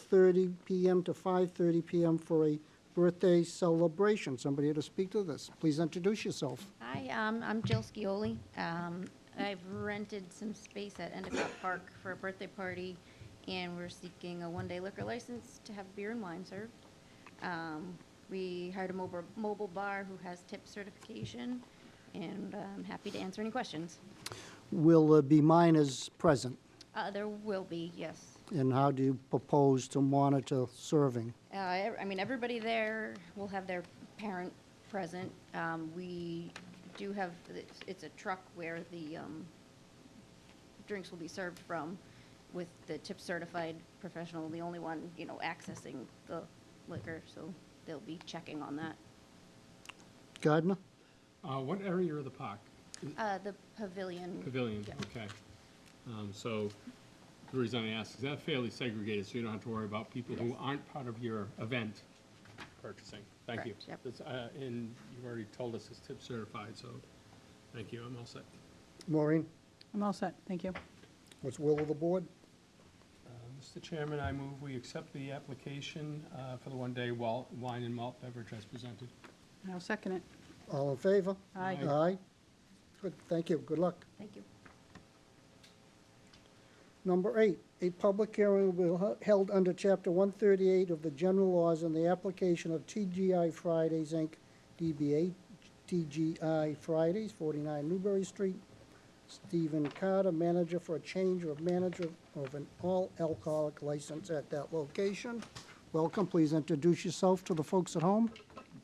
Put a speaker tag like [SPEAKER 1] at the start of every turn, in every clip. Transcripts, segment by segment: [SPEAKER 1] 12:30 PM to 5:30 PM for a birthday celebration. Somebody here to speak to this. Please introduce yourself.
[SPEAKER 2] Hi, um, I'm Jill Scioli. Um, I've rented some space at Endicott Park for a birthday party, and we're seeking a one-day liquor license to have beer and wine served. Um, we hired a mobile, mobile bar who has tip certification, and I'm happy to answer any questions.
[SPEAKER 1] Will uh, be minors present,
[SPEAKER 2] Uh, there will be, yes.
[SPEAKER 1] and how do you propose to monitor serving?
[SPEAKER 2] Uh, ev- I mean, everybody there will have their parent present. Um, we do have, it's, it's a truck where the, um, drinks will be served from with the tip certified professional, the only one, you know, accessing the liquor, so they'll be checking on that.
[SPEAKER 1] Gardner?
[SPEAKER 3] Uh, what area of the park?
[SPEAKER 2] Uh, the pavilion.
[SPEAKER 3] Pavilion,
[SPEAKER 2] Yeah.
[SPEAKER 3] okay. Um, so, the reason I ask is that fairly segregated, so you don't have to worry about people who aren't part of your event purchasing. Thank you.
[SPEAKER 2] Correct, yep.
[SPEAKER 3] That's, uh, and you've already told us it's tip certified, so, thank you, I'm all set.
[SPEAKER 1] Maureen?
[SPEAKER 4] I'm all set, thank you.
[SPEAKER 1] What's will of the board?
[SPEAKER 3] Uh, Mr. Chairman, I move we accept the application, uh, for the one-day wal- wine and malt beverage as presented.
[SPEAKER 4] And I'll second it.
[SPEAKER 1] All in favor?
[SPEAKER 4] Aye.
[SPEAKER 3] Aye.
[SPEAKER 1] Aye. Good, thank you. Good luck.
[SPEAKER 2] Thank you.
[SPEAKER 1] Number eight, a public hearing will be held under Chapter 138 of the General Laws on the application of TGI Fridays, Inc., DBA TGI Fridays, 49 Newberry Street. Stephen Carter, manager for a change of manager of an all alcoholic license at that location. Welcome, please introduce yourself to the folks at home.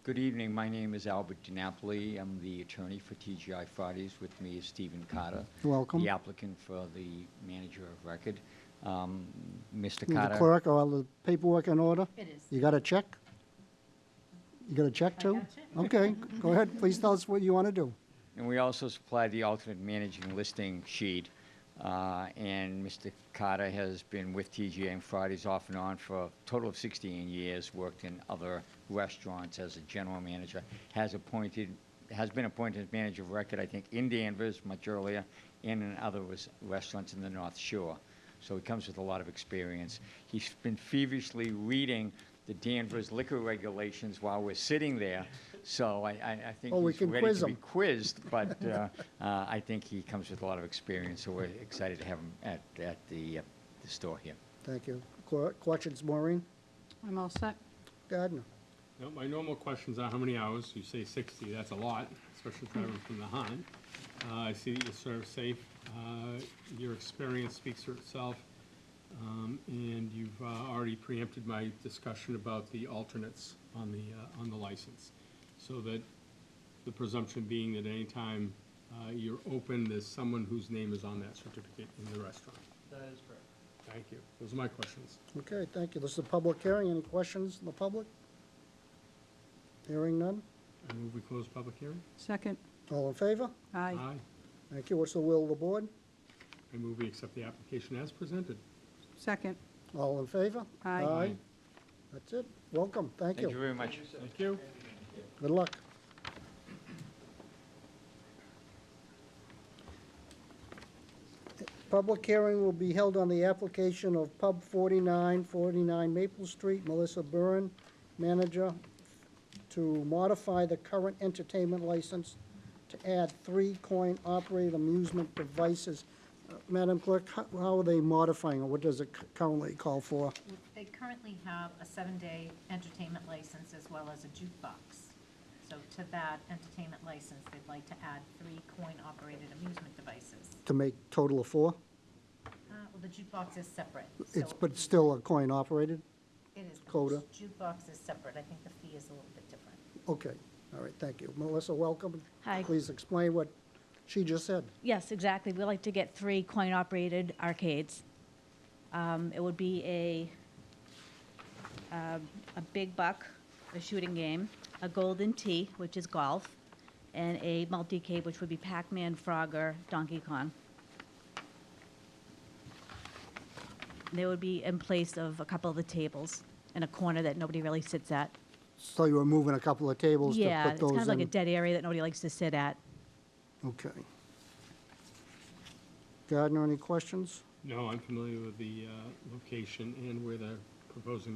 [SPEAKER 5] Good evening. My name is Albert DiNapoli. I'm the attorney for TGI Fridays. With me is Stephen Carter.
[SPEAKER 1] Welcome.
[SPEAKER 5] The applicant for the manager of record. Um, Mr.
[SPEAKER 1] The
[SPEAKER 5] Carter.
[SPEAKER 1] clerk, all the paperwork in order?
[SPEAKER 2] It is.
[SPEAKER 1] You got a check? You got a check too? Okay, go ahead, please tell us what you want to do.
[SPEAKER 5] And we also supply the alternate managing listing sheet. Uh, And Mr. Carter has been with TGA and Fridays off and on for a total of 16 years, worked in other restaurants as a general manager, has appointed, has been appointed as manager of record, I think, in Danvers much earlier, and in other res- restaurants in the North Shore. So he comes with a lot of experience. He's been feverishly reading the Danvers liquor regulations while we're sitting there, so I, I I think
[SPEAKER 1] Oh, we
[SPEAKER 5] he's
[SPEAKER 1] can
[SPEAKER 5] ready
[SPEAKER 1] quiz
[SPEAKER 5] to be
[SPEAKER 1] him.
[SPEAKER 5] quizzed, but uh, uh, I think he comes with a lot of experience, so we're excited to have him at, at the, uh, the store here.
[SPEAKER 1] Thank you. Cor- Questions, Maureen
[SPEAKER 4] I'm all set.
[SPEAKER 1] Gardner?
[SPEAKER 3] Now, my normal questions are how many hours? You say sixty, that's a lot, especially traveling from the Han. Uh, I see that you serve safe. Uh, Your experience speaks for itself. Um, And you've uh, already preempted my discussion about the alternates on the, uh, on the license. So that the presumption being that anytime uh, you're open, there's someone whose name is on that certificate in the restaurant. That is correct. Thank you. Those are my questions.
[SPEAKER 1] Okay, thank you. This is a public hearing. Any questions in the public? Hearing none?
[SPEAKER 3] I move we close public hearing.
[SPEAKER 4] Second,
[SPEAKER 1] All in favor?
[SPEAKER 4] aye.
[SPEAKER 1] Thank you. What's the will of the board?
[SPEAKER 3] I move we accept the application as presented.
[SPEAKER 4] Second,
[SPEAKER 1] All in favor?
[SPEAKER 4] Aye.
[SPEAKER 1] Aye. That's it. Welcome. Thank
[SPEAKER 5] Thank you
[SPEAKER 1] you.
[SPEAKER 5] very much.
[SPEAKER 3] Thank you.
[SPEAKER 1] Good luck. Public hearing will be held on the application of Pub 49, 49 Maple Street, Melissa Byrne, manager, to modify the current entertainment license to add three coin-operated amusement devices. Uh, Madam Clerk, how- how are they modifying it? What does it cu- currently call for?
[SPEAKER 6] They currently have a seven-day entertainment license as well as a jukebox. So to that entertainment license, they'd like to add three coin-operated amusement devices.
[SPEAKER 1] To make total of four?
[SPEAKER 6] Uh, Well, the jukebox is separate.
[SPEAKER 1] It's,
[SPEAKER 6] so
[SPEAKER 1] but it's still a coin-operated?
[SPEAKER 6] It is, but
[SPEAKER 1] coda.
[SPEAKER 6] the jukebox is separate. I think the fee is a little bit different.
[SPEAKER 1] Okay, all right, thank you. Melissa, welcome.
[SPEAKER 7] Hi.
[SPEAKER 1] Please explain what she just said.
[SPEAKER 7] Yes, exactly. We like to get three coin-operated arcades. Um, it would be a, um, a big buck, a shooting game, a golden tee, which is golf, and a multi-cave, which would be Pac-Man, Frogger, Donkey Kong. They would be in place of a couple of the tables in a corner that nobody really sits at.
[SPEAKER 1] So you were moving a couple of tables to
[SPEAKER 7] Yeah,
[SPEAKER 1] put
[SPEAKER 7] it's kind
[SPEAKER 1] those
[SPEAKER 7] of like a
[SPEAKER 1] in?
[SPEAKER 7] dead area that nobody likes to sit at.
[SPEAKER 1] Okay. Gardner, any questions?
[SPEAKER 3] No, I'm familiar with the uh, location and where the proposing